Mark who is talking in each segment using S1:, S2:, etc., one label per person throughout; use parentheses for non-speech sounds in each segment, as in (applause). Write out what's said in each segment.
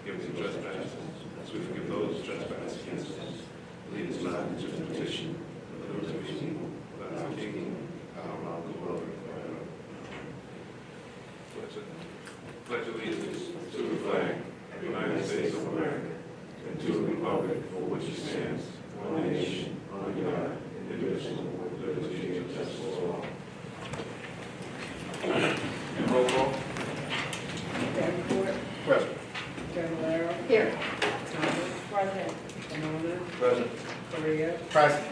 S1: forgiveness of trespasses, as we forgive those who trespass against us. Lead us not into temptation, but deliver us from evil. For thine is the kingdom, power, and glory forever. Pledge of- Pledge allegiance to the flag of the United States of America and to the republic for which it stands, one nation, under God, indivisible, with liberty and justice for all. And roll call.
S2: Davenport,
S1: Present.
S2: Fablelaro,
S3: Here.
S2: Thomas,
S3: President.
S2: Camona,
S1: Present.
S2: Korea,
S1: Present.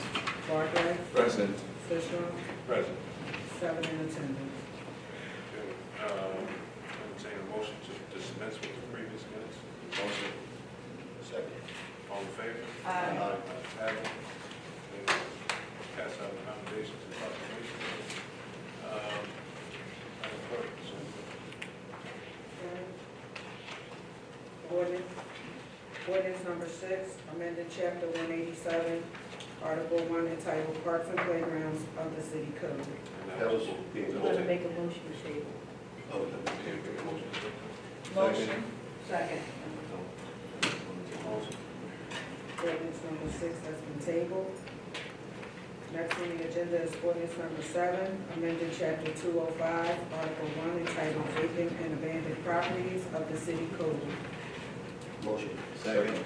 S2: Barclay,
S1: Present.
S2: Sisram,
S1: Present.
S2: seven in attendance.
S1: um, Entertain a motion to dispense with the previous minutes. Motion. Second. All in favor?
S3: Aye.
S1: Ayes have it. And Pass out the nominations and proclamations. Um, Madam Clerk, so-
S2: Ordinance, ordinance number six, amended chapter one eighty-seven, article one entitled Parks and Playgrounds of the City Code.
S1: and that was the
S3: I'm going to make a motion to table.
S1: Oh, that was the motion.
S3: Motion. Second.
S1: Motion.
S2: Ordinance number six has been tabled. Next on the agenda is ordinance number seven, amended chapter two oh five, article one entitled Vacant and Abandoned Properties of the City Code.
S4: Motion. Second.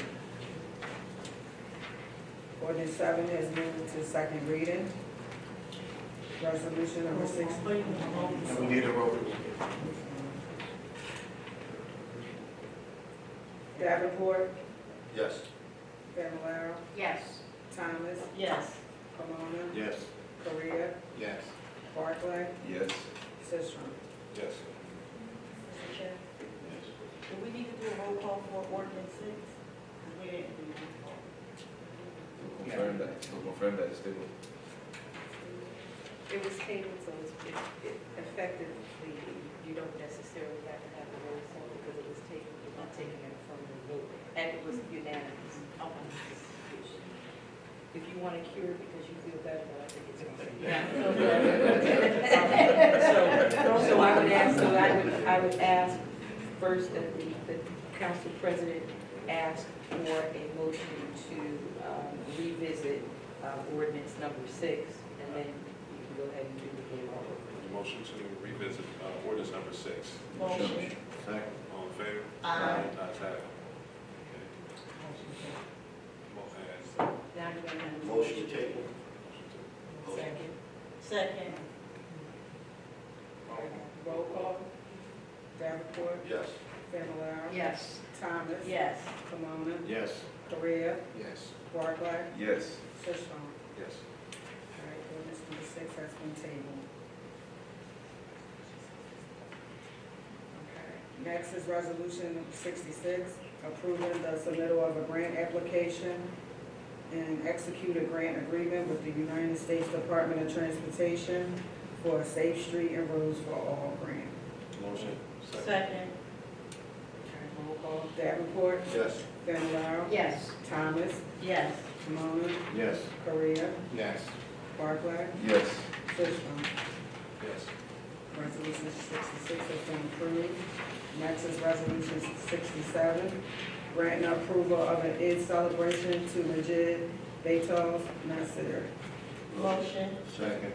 S2: Ordinance seven has moved to second reading. Resolution number six.
S4: And we need a roll.
S2: Davenport,
S4: Yes.
S2: Fablelaro,
S3: Yes.
S2: Thomas,
S3: Yes.
S2: Camona,
S4: Yes.
S2: Korea,
S4: Yes.
S2: Barclay,
S4: Yes.
S2: Sisram.
S1: Yes.
S3: Mr. Chair, do we need to do a roll call for ordinance six? 'Cause we didn't do roll call.
S5: We'll Confirm that, we'll confirm that, it's stable.
S6: It was tabled, so it's, it- it effectively, you don't necessarily have to have a roll call because it was taken, you're not taking it from the vote. And it was unanimous. of the decision. If you want to cure it because you feel better, but I think it's. So, so I would ask, so I would, I would ask first that the, the council president ask for a motion to um, revisit uh, ordinance number six, and then you can go ahead and do the game over.
S1: Motion to revisit uh, ordinance number six.
S3: Motion.
S4: Second.
S1: All in favor?
S3: Aye.
S1: Ayes have it. Okay. Mo- uh,
S3: Now you want to have a
S4: Motion table.
S1: motion to-
S3: Second. Second.
S2: Roll call. Davenport,
S4: Yes.
S2: Fablelaro.
S3: Yes.
S2: Thomas.
S3: Yes.
S2: Camona,
S4: Yes.
S2: Korea,
S4: Yes.
S2: Barclay,
S5: Yes,
S2: Sisram.
S1: Yes.
S2: All right, ordinance number six has been tabled. Okay. Next is resolution sixty-six, approving the submittal of a grant application and execute a grant agreement with the United States Department of Transportation for a safe street and roads for all grant.
S4: Motion.
S3: Second.
S2: Roll call. Davenport,
S4: Yes.
S2: Fennel,
S3: Yes.
S2: Thomas,
S3: Yes.
S2: Camona,
S4: Yes.
S2: Korea,
S4: Yes.
S2: Barclay,
S5: yes,
S2: Fishman.
S1: Yes.
S2: Resolution sixty-six has been approved. Next is resolution sixty-seven, granting approval of an Eid celebration to Majid Beethoven Nasir.
S3: Motion.
S4: Second.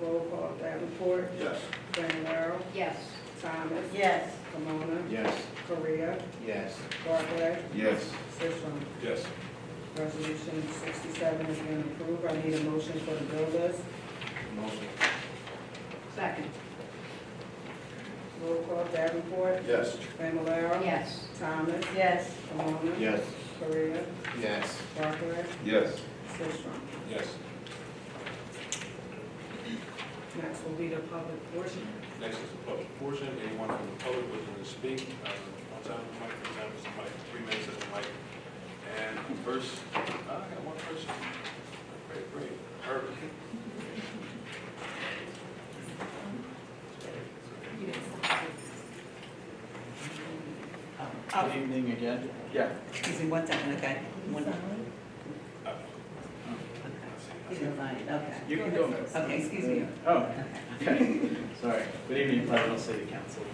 S2: Roll call, Davenport,
S4: Yes.
S2: Fennel,
S3: Yes.
S2: Thomas,
S3: Yes.
S2: Camona,
S4: Yes.
S2: Korea,
S4: Yes.
S2: Barclay,
S5: yes,
S2: Sisram.
S1: Yes.
S2: Resolution sixty-seven has been approved. I need a motion for the bill list.
S4: Motion.
S3: Second.
S2: Roll call, Davenport,
S4: Yes.
S2: Fennel,
S3: Yes.
S2: Thomas,
S3: Yes.
S2: Camona,
S4: Yes.
S2: Korea,
S4: Yes.
S2: Barclay,
S5: yes.
S2: Sisram.
S1: Yes.
S2: Next will be the public portion.
S1: Next is the public portion. Anyone from the public wishing to speak, uh, one time, the mic, two times, the mic, three minutes at the mic. And first, uh, I got one person. Great, great. Herbert.
S7: Good evening again. Yeah.
S6: Excuse me, one second, okay. One,
S1: Uh,
S6: you don't mind, okay.
S7: You can go next.
S6: Okay, excuse me.
S7: (laughs) Oh, okay. Sorry. Good evening, Pleasantville City Council.